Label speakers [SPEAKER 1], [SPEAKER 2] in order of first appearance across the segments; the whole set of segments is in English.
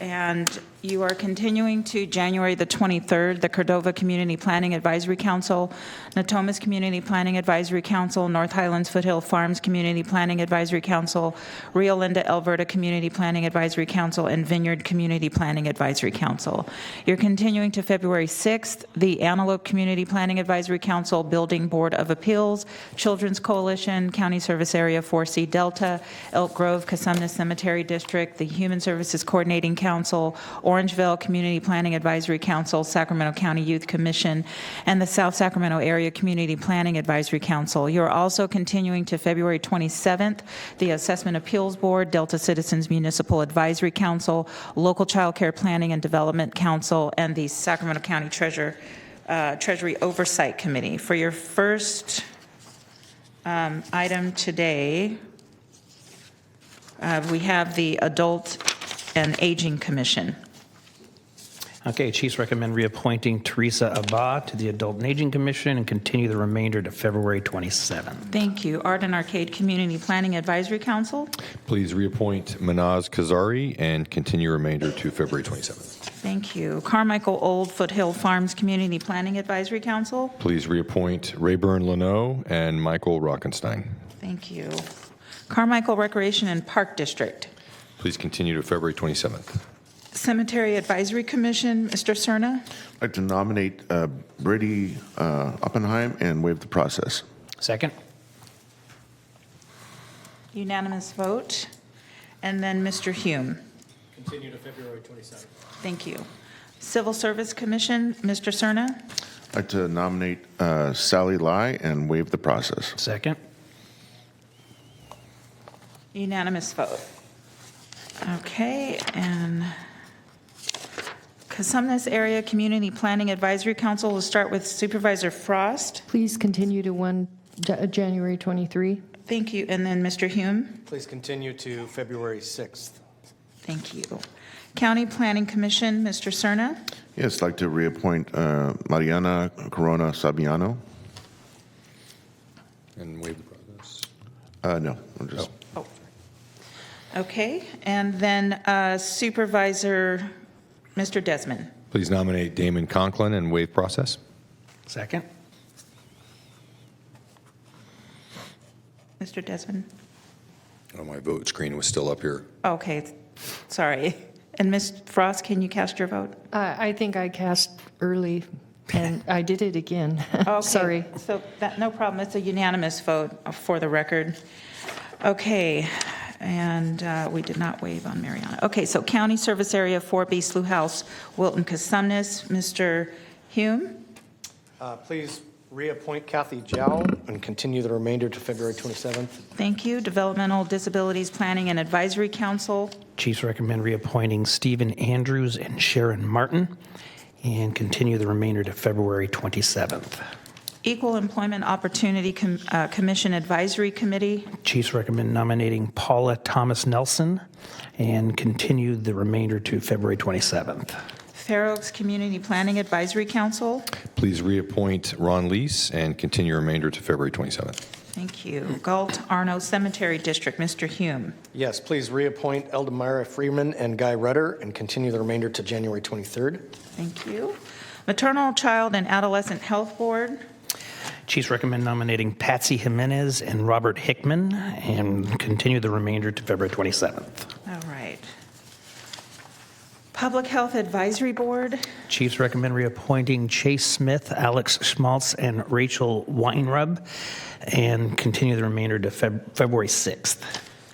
[SPEAKER 1] And you are continuing to January the 23rd, the Cordova Community Planning Advisory Council, Natomas Community Planning Advisory Council, North Highlands Foothill Farms Community Planning Advisory Council, Rio Linda Alberta Community Planning Advisory Council, and Vineyard Community Planning Advisory Council. You're continuing to February 6th, the Antelope Community Planning Advisory Council, Building Board of Appeals, Children's Coalition, County Service Area 4C Delta, Elk Grove, Casumna Cemetery District, the Human Services Coordinating Council, Orangeville Community Planning Advisory Council, Sacramento County Youth Commission, and the South Sacramento Area Community Planning Advisory Council. You're also continuing to February 27th, the Assessment Appeals Board, Delta Citizens Municipal Advisory Council, Local Child Care Planning and Development Council, and the Sacramento County Treasurer, uh, Treasury Oversight Committee. For your first um, item today, uh, we have the Adult and Aging Commission.
[SPEAKER 2] Okay, Chiefs recommend reappointing Teresa Abba to the Adult and Aging Commission and continue the remainder to February 27th.
[SPEAKER 1] Thank you. Art and Arcade Community Planning Advisory Council.
[SPEAKER 3] Please reappoint Manaz Kazari and continue remainder to February 27th.
[SPEAKER 1] Thank you. Carmichael Old Foothill Farms Community Planning Advisory Council.
[SPEAKER 3] Please reappoint Rayburn Leno and Michael Rockenstein.
[SPEAKER 1] Thank you. Carmichael Recreation and Park District.
[SPEAKER 3] Please continue to February 27th.
[SPEAKER 1] Cemetery Advisory Commission, Mr. Cerna.
[SPEAKER 4] I'd like to nominate uh, Brady uh, Oppenheim and waive the process.
[SPEAKER 2] Second?
[SPEAKER 1] Unanimous vote. And then Mr. Hume. Continue to February 27th. Thank you. Civil Service Commission, Mr. Cerna.
[SPEAKER 4] I'd like to nominate uh, Sally Lai and waive the process.
[SPEAKER 2] Second?
[SPEAKER 1] Unanimous vote. Okay, and Casumnas Area Community Planning Advisory Council, we'll start with Supervisor Frost.
[SPEAKER 5] Please continue to 1 Ja- uh, January 23.
[SPEAKER 1] Thank you, and then Mr. Hume.
[SPEAKER 6] Please continue to February 6th.
[SPEAKER 1] Thank you. County Planning Commission, Mr. Cerna.
[SPEAKER 4] Yes, I'd like to reappoint uh, Mariana Corona Sabiano.
[SPEAKER 3] And waive the process.
[SPEAKER 4] Uh, No, I'm just,
[SPEAKER 1] Oh. Okay, and then uh, Supervisor, Mr. Desmond.
[SPEAKER 3] Please nominate Damon Conklin and waive process.
[SPEAKER 2] Second?
[SPEAKER 1] Mr. Desmond?
[SPEAKER 3] Oh, my vote screen was still up here.
[SPEAKER 1] Okay, sorry. And Ms. Frost, can you cast your vote?
[SPEAKER 5] I I think I cast early, and I did it again.
[SPEAKER 1] Okay,
[SPEAKER 5] Sorry.
[SPEAKER 1] So that, no problem. It's a unanimous vote uh, for the record. Okay, and uh, we did not waive on Mariana. Okay, so County Service Area 4B Slough House, Wilton Casumnes, Mr. Hume.
[SPEAKER 6] Uh, Please reappoint Kathy Jow and continue the remainder to February 27th.
[SPEAKER 1] Thank you. Developmental Disabilities Planning and Advisory Council.
[SPEAKER 2] Chiefs recommend reappointing Stephen Andrews and Sharon Martin and continue the remainder to February 27th.
[SPEAKER 1] Equal Employment Opportunity Com- uh, Commission Advisory Committee.
[SPEAKER 2] Chiefs recommend nominating Paula Thomas Nelson and continue the remainder to February 27th.
[SPEAKER 1] Fair Oaks Community Planning Advisory Council.
[SPEAKER 3] Please reappoint Ron Lees and continue remainder to February 27th.
[SPEAKER 1] Thank you. Galt Arno Cemetery District, Mr. Hume.
[SPEAKER 6] Yes, please reappoint Eldemira Freeman and Guy Rudder and continue the remainder to January 23rd.
[SPEAKER 1] Thank you. Maternal, Child, and Adolescent Health Board,
[SPEAKER 2] Chiefs recommend nominating Patsy Jimenez and Robert Hickman and continue the remainder to February 27th.
[SPEAKER 1] all right. Public Health Advisory Board,
[SPEAKER 2] Chiefs recommend reappointing Chase Smith, Alex Schmaltz, and Rachel Weinrub and continue the remainder to Feb- February 6th.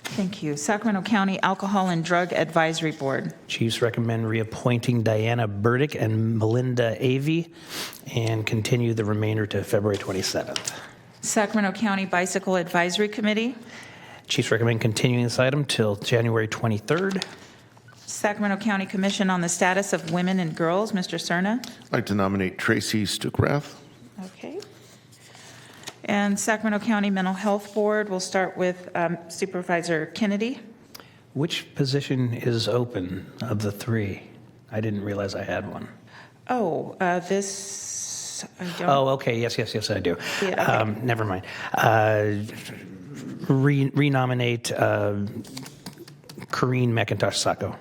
[SPEAKER 1] thank you. Sacramento County Alcohol and Drug Advisory Board,
[SPEAKER 2] Chiefs recommend reappointing Diana Burdick and Melinda Avey and continue the remainder to February 27th.
[SPEAKER 1] Sacramento County Bicycle Advisory Committee,
[SPEAKER 2] Chiefs recommend continuing this item till January 23rd.
[SPEAKER 1] Sacramento County Commission on the Status of Women and Girls, Mr. Cerna.
[SPEAKER 4] I'd like to nominate Tracy Stukrath.
[SPEAKER 1] Okay. And Sacramento County Mental Health Board, we'll start with um, Supervisor Kennedy.
[SPEAKER 2] Which position is open of the three? I didn't realize I had one.
[SPEAKER 1] Oh, uh, this, I don't.
[SPEAKER 2] Oh, okay, yes, yes, yes, I do.
[SPEAKER 1] Yeah, okay.
[SPEAKER 2] Um, Never mind. Uh, re- Renominate uh, Corinne McIntosh Sacco.